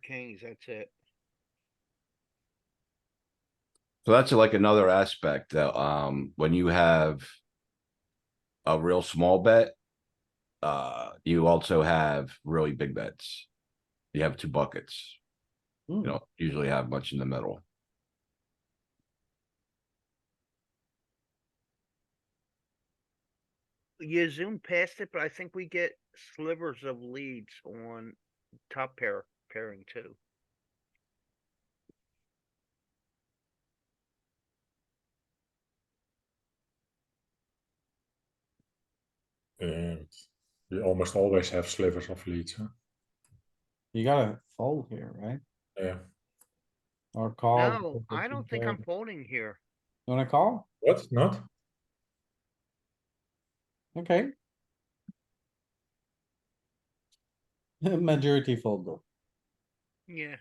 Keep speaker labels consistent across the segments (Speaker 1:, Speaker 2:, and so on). Speaker 1: kings, that's it.
Speaker 2: So that's like another aspect that, um, when you have a real small bet, uh, you also have really big bets. You have two buckets. You
Speaker 3: Hmm.
Speaker 2: don't usually have much in the middle.
Speaker 1: You zoom past it, but I think we get slivers of leads on top pair pairing too.
Speaker 4: And you Eh, almost always have slivers of leads, huh?
Speaker 3: You gotta fold here, right?
Speaker 4: Yeah.
Speaker 3: Or call?
Speaker 1: No,
Speaker 3: because the
Speaker 1: I
Speaker 3: two
Speaker 1: don't think
Speaker 3: pair-
Speaker 1: I'm folding here.
Speaker 3: You Wanna call?
Speaker 4: What? Not?
Speaker 3: Okay. Majority fold though.
Speaker 1: Yeah,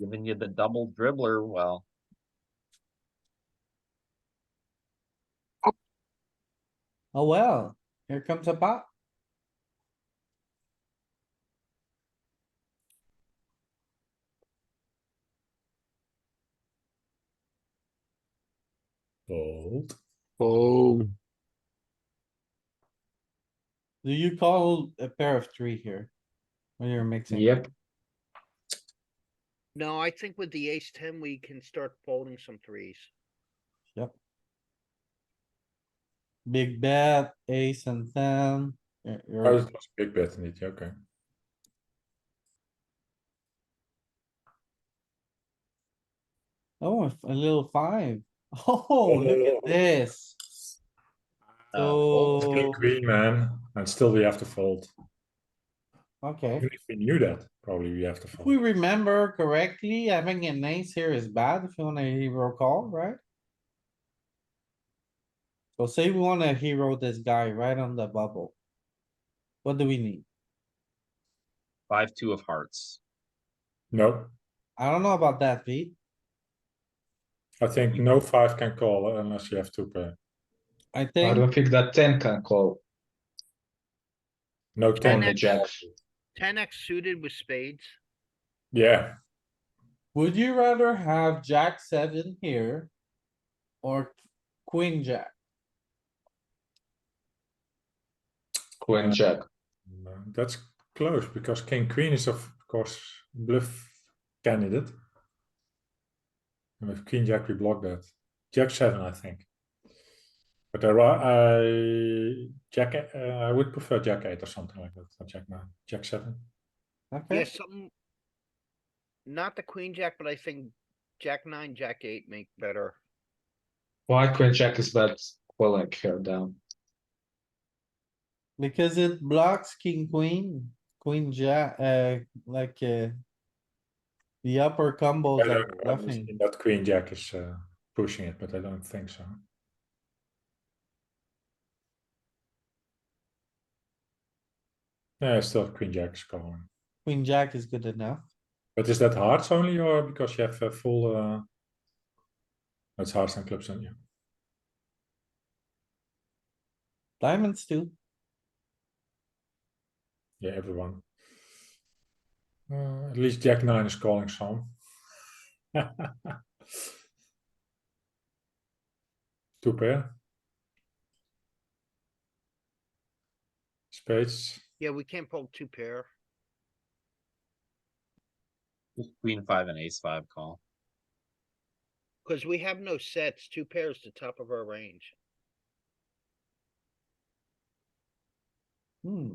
Speaker 5: Giving you the double dribbler, well,
Speaker 3: Oh, well, here comes a pot.
Speaker 4: Fold.
Speaker 6: Oh,
Speaker 3: Do you call a pair of three here? When you're mixing?
Speaker 1: no, I think with the ace ten, we can start folding some threes.
Speaker 3: Big bet, ace and ten. You're- you're-
Speaker 4: Oh, it was a big bet indeed. yeah, Okay.
Speaker 3: Oh, a f- a little five. Oh, look at this.
Speaker 4: Still
Speaker 5: fold.
Speaker 3: So,
Speaker 4: queen, man. And still we have to fold.
Speaker 3: okay.
Speaker 4: Even if we knew that, probably we have to
Speaker 3: If we
Speaker 4: fold.
Speaker 3: remember correctly, having an ace here is bad if you want a hero call, right? So say we wanna hero this guy right on the bubble. What do we need?
Speaker 5: five, two of hearts.
Speaker 4: No,
Speaker 3: I don't know about that, Pete.
Speaker 4: I think no five can call unless you have two pair.
Speaker 3: I
Speaker 7: I
Speaker 3: think,
Speaker 7: don't think that ten can call
Speaker 4: No
Speaker 1: Ten
Speaker 7: on
Speaker 4: ten.
Speaker 7: the
Speaker 1: X.
Speaker 7: jack.
Speaker 1: Ten X suited with spades.
Speaker 4: Yeah.
Speaker 3: would you rather have jack seven here? Or queen jack?
Speaker 7: Queen jack.
Speaker 4: No, Uh, That's close because king queen is of course bluff candidate. And with queen jack we block that. Jack seven I think. But there are I jack e- uh, I would prefer jack eight or something like that. Not jack nine, jack seven.
Speaker 1: Yeah,
Speaker 3: Okay,
Speaker 1: something. Not the queen jack, but I think jack nine, jack eight make better.
Speaker 7: Why queen jack is that calling here down?
Speaker 3: because it blocks king, queen, queen jack, uh, like, uh. The upper combos
Speaker 4: I
Speaker 3: are
Speaker 4: don't know, I've
Speaker 3: bluffing.
Speaker 4: seen that queen jack is uh, pushing it, but I don't think so. Yeah, I still have queen jack is calling.
Speaker 3: Queen jack is good enough.
Speaker 4: But is that hearts only or because you have a full uh that's hearts and clubs on you.
Speaker 3: Diamonds too.
Speaker 4: Yeah, everyone. Uh, at least Jack Nine is calling some. Two pair. Spades.
Speaker 1: Yeah, we can't fold two pair.
Speaker 5: Queen five and ace five call.
Speaker 1: Cause we have no sets, two pairs the top of our range.
Speaker 3: Hmm,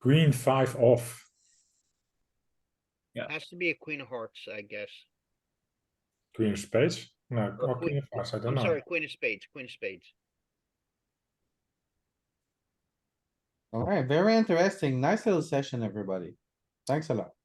Speaker 4: Queen five off.
Speaker 1: Has to be a queen of hearts, I guess.
Speaker 4: Queen of spades. No, or
Speaker 1: queen-
Speaker 4: queen of hearts. I don't
Speaker 1: I'm
Speaker 4: know.
Speaker 1: sorry, queen of spades, queen of spades.
Speaker 3: alright, very interesting. Nice little session, everybody. Thanks a lot.